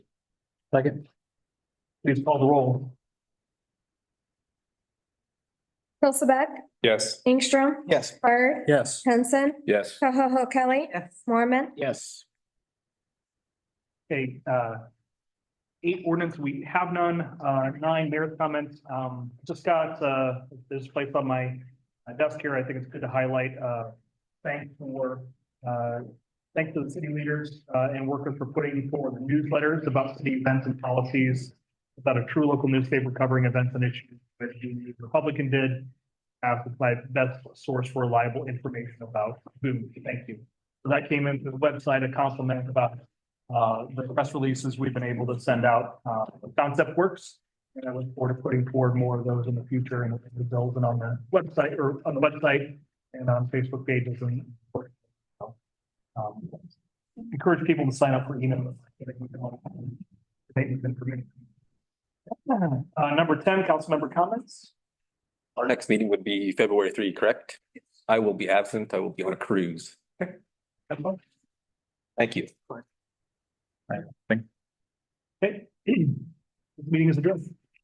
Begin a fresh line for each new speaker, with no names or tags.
Second. Please call the roll.
Hilsaback,
Yes.
Ingstrom,
Yes.
Bird,
Yes.
Henson,
Yes.
Koho Kelly, Mormon,
Yes. Okay, uh, eight ordinance, we have none, uh, nine mayor's comments, um, just got, uh, this place on my my desk here, I think it's good to highlight, uh, thanks for, uh, thanks to the city leaders, uh, and workers for putting forward newsletters about city events and policies about a true local newspaper covering events and issues that the Republican did as my best source for reliable information about food. Thank you. So That came into the website, a compliment about uh, the press releases we've been able to send out. Uh, Concept works. And I look forward to putting forward more of those in the future and the bills and on the website or on the website and on Facebook pages and. so, um, Encourage people to sign up for email. Statements information. Uh, number ten, council member comments.
Our next meeting would be February three, correct? I will be absent. I will be on a cruise.
Emma?
Thank you.
Okay. This Meeting is adjourned.